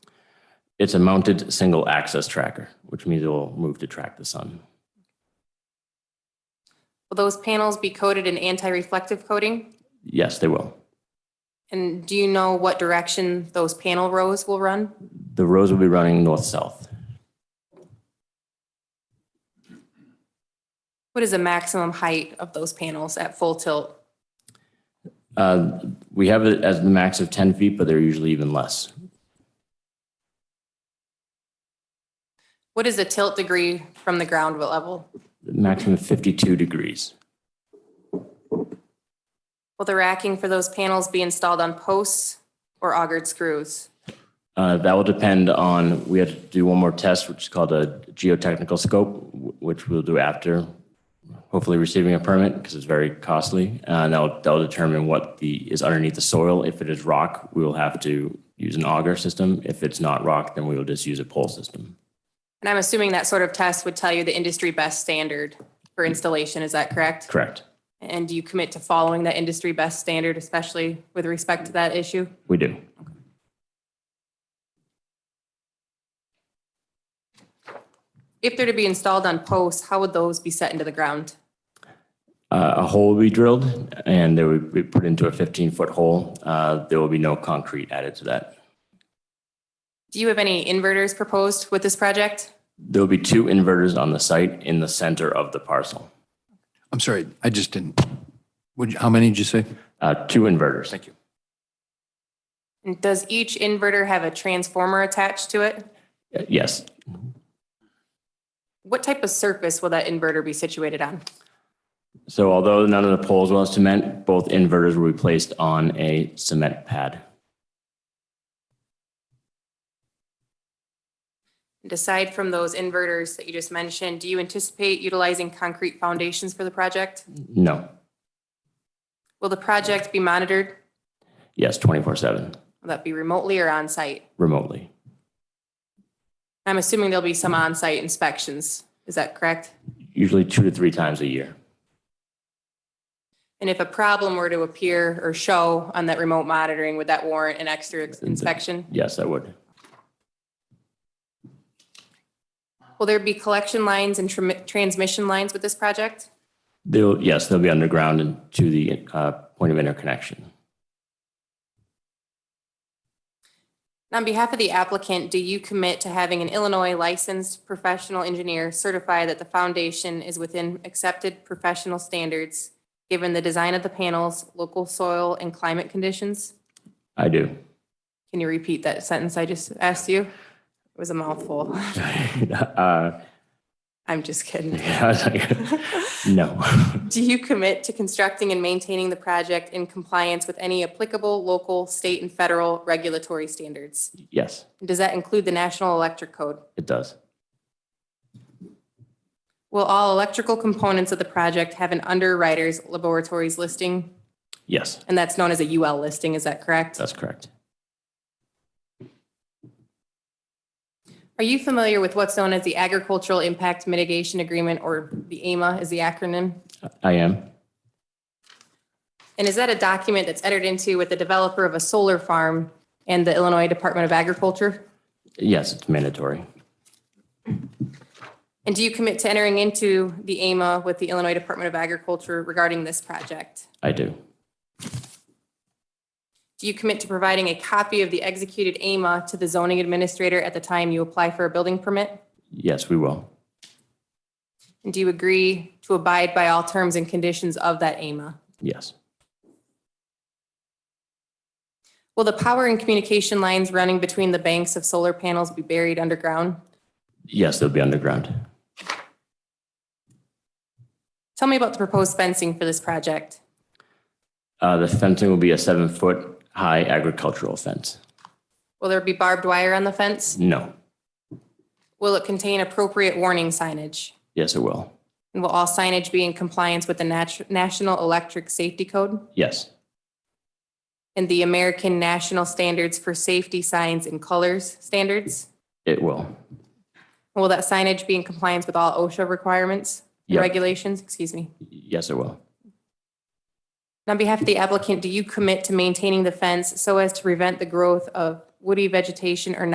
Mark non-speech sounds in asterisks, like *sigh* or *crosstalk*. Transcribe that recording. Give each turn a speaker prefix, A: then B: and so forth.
A: It's a mounted single axis tracker, which means it will move to track the sun.
B: Will those panels be coated in anti-reflective coating?
A: Yes, they will.
B: And do you know what direction those panel rows will run?
A: The rows will be running north-south.
B: What is the maximum height of those panels at full tilt?
A: Uh, We have it as the max of 10 feet, but they're usually even less.
B: What is the tilt degree from the ground level?
A: The Maximum of 52 degrees.
B: Will the racking for those panels be installed on posts or augered screws?
A: Uh, That will depend on, we have to do one more test, which is called a geotechnical scope, wh- which we'll do after hopefully receiving a permit because it's very costly. Uh, And that'll, that'll determine what the, is underneath the soil. If it is rock, we will have to use an auger system. If it's not rock, then we will just use a pole system.
B: And I'm assuming that sort of test would tell you the industry best standard for installation, is that correct?
A: Correct.
B: And do you commit to following that industry best standard, especially with respect to that issue?
A: We do.
B: If they're to be installed on posts, how would those be set into the ground?
A: Uh, A hole will be drilled and they will be put into a 15-foot hole. Uh, There will be no concrete added to that.
B: Do you have any inverters proposed with this project?
A: There will be two inverters on the site in the center of the parcel.
C: I'm sorry, I just didn't. Would, you- how many did you say?
A: Uh, Two inverters.
C: you.
B: And does each inverter have a transformer attached to it?
A: Uh, Yes.
B: What type of surface will that inverter be situated on?
A: So although none of the poles will have cement, both inverters will be placed on a cement pad.
B: And aside from those inverters that you just mentioned, do you anticipate utilizing concrete foundations for the project?
A: No.
B: Will the project be monitored?
A: Yes, 24/7
B: Will that be remotely or on-site?
A: remotely.
B: I'm assuming there'll be some on-site inspections. Is that correct?
A: Usually two to three times a year.
B: And if a problem were to appear or show on that remote monitoring, would that warrant an extra inspection?
A: Yes, I would.
B: Will there be collection lines and tram- transmission lines with this project?
A: They'll, yes, they'll be underground and to the uh, point of interconnection.
B: On behalf of the applicant, do you commit to having an Illinois licensed professional engineer certify that the foundation is within accepted professional standards, given the design of the panels, local soil and climate conditions?
A: I do. *laughs*
B: Can you repeat that sentence I just asked you? It was a mouthful. *laughs*
A: Uh, *laughs*
B: I'm just kidding. *laughs*
A: I was like, *laughs* No. *laughs*
B: Do you commit to constructing and maintaining the project in compliance with any applicable local, state, and federal regulatory standards?
A: Yes,
B: Does that include the National Electric Code?
A: it does.
B: Will all electrical components of the project have an underwriter's laboratories listing?
A: Yes,
B: And that's known as a UL listing, is that correct?
A: that's correct.
B: Are you familiar with what's known as the Agricultural Impact Mitigation Agreement, or the AMA is the acronym?
A: I am.
B: And is that a document that's entered into with the developer of a solar farm and the Illinois Department of Agriculture?
A: Yes, it's mandatory.
B: And do you commit to entering into the AMA with the Illinois Department of Agriculture regarding this project?
A: I do.
B: Do you commit to providing a copy of the executed AMA to the zoning administrator at the time you apply for a building permit?
A: Yes, we will.
B: And do you agree to abide by all terms and conditions of that AMA?
A: Yes,
B: Will the power and communication lines running between the banks of solar panels be buried underground?
A: yes, they'll be underground.
B: Tell me about the proposed fencing for this project.
A: Uh, the fencing will be a seven foot high agricultural fence.
B: Will there be barbed wire on the fence?
A: No.
B: Will it contain appropriate warning signage?
A: Yes, it will.
B: And will all signage be in compliance with the nat- National Electric Safety Code
A: Yes,
B: and the American National Standards for Safety Signs and Colors standards?
A: it will.
B: Will that signage be in compliance with all OSHA requirements and
A: Yep.
B: regulations? Excuse me.
A: Yes, it will.
B: And On behalf of the applicant, do you commit to maintaining the fence so as to prevent the growth of woody vegetation or